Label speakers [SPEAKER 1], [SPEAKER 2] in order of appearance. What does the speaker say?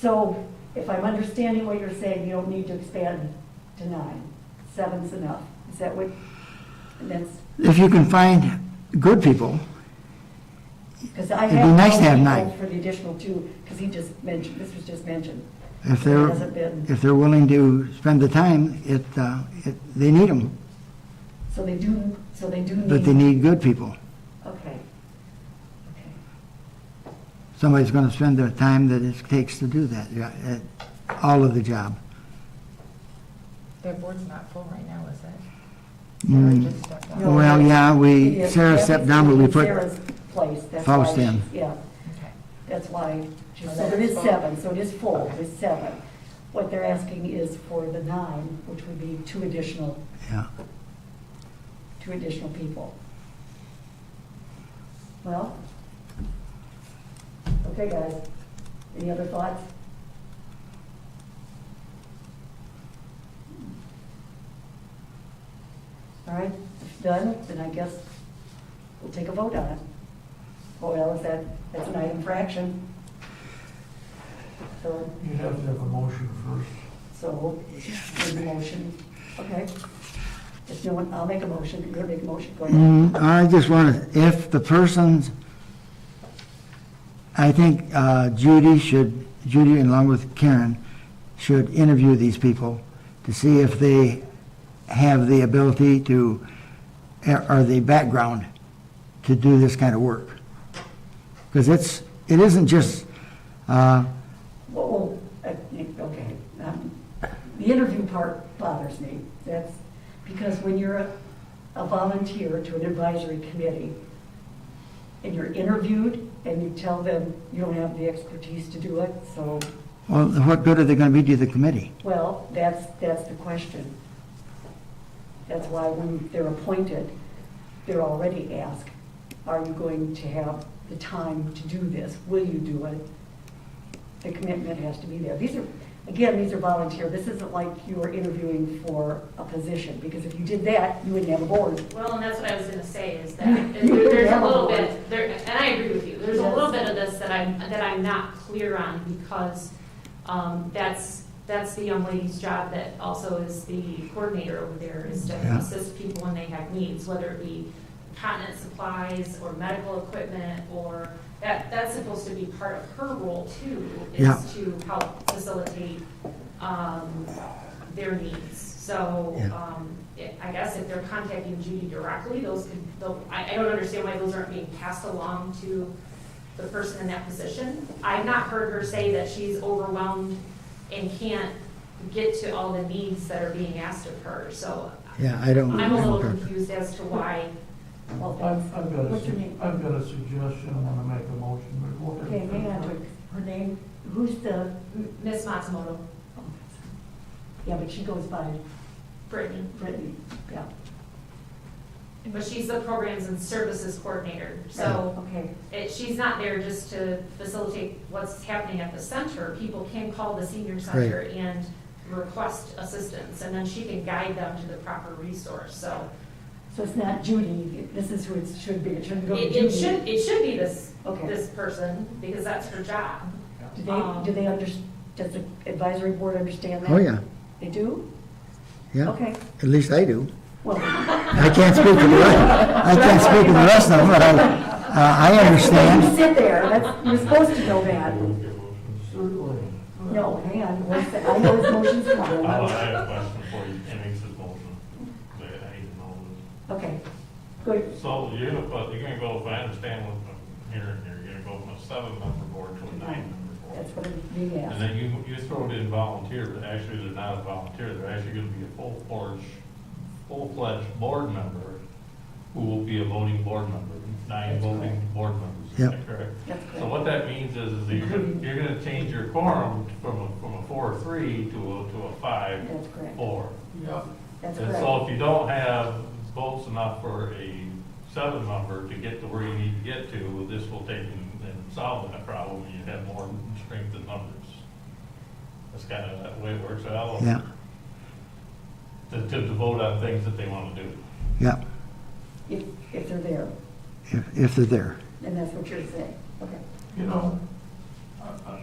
[SPEAKER 1] So if I'm understanding what you're saying, you don't need to expand to nine. Seven's enough. Is that what, and that's,
[SPEAKER 2] If you can find good people,
[SPEAKER 1] because I
[SPEAKER 2] It'd be
[SPEAKER 1] have.
[SPEAKER 2] nice to have
[SPEAKER 1] people
[SPEAKER 2] nine.
[SPEAKER 1] For the additional two, because he just mentioned, this was just mentioned.
[SPEAKER 2] if they're,
[SPEAKER 1] Hasn't been.
[SPEAKER 2] if they're willing to spend the time, it, uh, it, they need them,
[SPEAKER 1] So they do, so they do need.
[SPEAKER 2] but they need good people.
[SPEAKER 1] Okay. Okay.
[SPEAKER 2] Somebody's gonna spend the time that it takes to do that, yeah, at all of the job.
[SPEAKER 3] Their board's not full right now, is it? Or
[SPEAKER 2] Mm.
[SPEAKER 3] just stepped
[SPEAKER 1] No,
[SPEAKER 3] up?
[SPEAKER 2] Well,
[SPEAKER 1] that's-
[SPEAKER 2] yeah, we,
[SPEAKER 1] Yeah,
[SPEAKER 2] Sarah
[SPEAKER 1] that
[SPEAKER 2] stepped
[SPEAKER 1] was
[SPEAKER 2] down, but we put,
[SPEAKER 1] Sarah's place, that's why.
[SPEAKER 2] Faust in.
[SPEAKER 1] Yeah,
[SPEAKER 3] Okay.
[SPEAKER 1] that's why, she-
[SPEAKER 3] Oh,
[SPEAKER 1] so
[SPEAKER 3] that
[SPEAKER 1] there
[SPEAKER 3] is
[SPEAKER 1] is
[SPEAKER 3] full.
[SPEAKER 1] seven, so it is full, there's seven. What they're asking is for the nine, which would be two additional,
[SPEAKER 2] yeah.
[SPEAKER 1] two additional people. Well, okay, guys, any other thoughts? All right, if done, then I guess we'll take a vote on it. Oh, well, is that, that's an item for action. So,
[SPEAKER 4] You have to have a motion first.
[SPEAKER 1] so, there's a motion, okay. If no one, I'll make a motion, you're gonna make a motion, go ahead.
[SPEAKER 2] Mm, I just want to, if the person's, I think uh, Judy should, Judy along with Karen, should interview these people to see if they have the ability to, or the background to do this kind of work. Because it's, it isn't just, uh,
[SPEAKER 1] Well, uh, okay, um, the interview part bothers me, that's, because when you're a a volunteer to an advisory committee, and you're interviewed, and you tell them you don't have the expertise to do it, so,
[SPEAKER 2] well, what good are they going to be to the committee?
[SPEAKER 1] well, that's, that's the question. That's why when they're appointed, they're already asked, are you going to have the time to do this? Will you do it? The commitment has to be there. These are, again, these are volunteer. This isn't like you are interviewing for a position, because if you did that, you wouldn't have a board.
[SPEAKER 5] Well, and that's what I was gonna say, is that there- there's a little bit, there, and I agree with you, there's a little bit of this that I'm, that I'm not clear on, because, um, that's, that's the young lady's job that also is the coordinator over there, is
[SPEAKER 2] Yeah.
[SPEAKER 5] to assist people when they have needs, whether it be continent supplies, or medical equipment, or, that, that's supposed to be part of her role too,
[SPEAKER 2] Yeah.
[SPEAKER 5] is to help facilitate, um, their needs. So,
[SPEAKER 2] Yeah.
[SPEAKER 5] um, it- I guess if they're contacting Judy directly, those could, tho- I, I don't understand why those aren't being passed along to the person in that position. I've not heard her say that she's overwhelmed and can't get to all the needs that are being asked of her, so
[SPEAKER 2] Yeah, I don't.
[SPEAKER 5] I'm a little confused as to why,
[SPEAKER 1] Well, that's-
[SPEAKER 4] I've, I've got a,
[SPEAKER 1] What's your
[SPEAKER 4] su-
[SPEAKER 1] name?
[SPEAKER 4] I've got a suggestion, I want to make a motion, but what
[SPEAKER 1] Okay, hang on,
[SPEAKER 4] if,
[SPEAKER 1] her name, who's the,
[SPEAKER 5] Ms. Matsumoto,
[SPEAKER 1] yeah, but she goes by
[SPEAKER 5] Brittany,
[SPEAKER 1] Brittany, yeah.
[SPEAKER 5] but she's the Programs and Services Coordinator, so
[SPEAKER 1] Okay,
[SPEAKER 5] it, she's not there just to facilitate what's happening at the center. People can call the senior center and request assistance, and then she can guide them to the proper resource, so.
[SPEAKER 1] so it's not Judy, this is who it should be, it shouldn't go to
[SPEAKER 5] It,
[SPEAKER 1] Judy.
[SPEAKER 5] it should, it should be this,
[SPEAKER 1] Okay.
[SPEAKER 5] this person, because that's her job.
[SPEAKER 1] Do they, do they
[SPEAKER 5] um,
[SPEAKER 1] under, does the advisory board understand that?
[SPEAKER 2] Oh, yeah,
[SPEAKER 1] They do?
[SPEAKER 2] yeah.
[SPEAKER 1] Okay,
[SPEAKER 2] At least I do.
[SPEAKER 1] well,
[SPEAKER 2] I can't speak for the rest, I can't speak for the rest of them, but I, uh, I
[SPEAKER 1] you
[SPEAKER 2] understand.
[SPEAKER 1] sit there, that's, you're supposed to know that.
[SPEAKER 4] certainly,
[SPEAKER 1] No, hang on, one sec, I know his motion's
[SPEAKER 6] Oh, I
[SPEAKER 1] coming.
[SPEAKER 6] have a question for you, and it's his motion, but I need to know
[SPEAKER 1] Okay, good,
[SPEAKER 6] this. So you're gonna put, you're gonna go, if I understand what I'm hearing here, you're gonna go from a seven-member board to a nine-member board.
[SPEAKER 1] that's what I'm being
[SPEAKER 6] And
[SPEAKER 1] asked.
[SPEAKER 6] then you, you throw it in volunteer, but actually they're not a volunteer, they're actually gonna be a full-fledged, full-fledged board member who will be a voting board member, nine
[SPEAKER 1] That's
[SPEAKER 6] voting
[SPEAKER 1] correct.
[SPEAKER 6] board members, is that correct?
[SPEAKER 1] That's
[SPEAKER 6] So
[SPEAKER 1] correct.
[SPEAKER 6] what that means is, is that you're gonna, you're gonna change your quorum from a, from a four-three to a, to a
[SPEAKER 1] That's correct,
[SPEAKER 6] five-four.
[SPEAKER 4] yeah,
[SPEAKER 1] that's
[SPEAKER 6] And
[SPEAKER 1] correct.
[SPEAKER 6] so if you don't have votes enough for a seven member to get to where you need to get to, this will take and and solve that problem, you have more strength in numbers. That's kind of that way it works out,
[SPEAKER 2] Yeah,
[SPEAKER 6] to, to to vote on things that they want to do.
[SPEAKER 2] yeah,
[SPEAKER 1] If, if they're there,
[SPEAKER 2] if, if they're there.
[SPEAKER 1] and that's what you're saying, okay.
[SPEAKER 4] you know,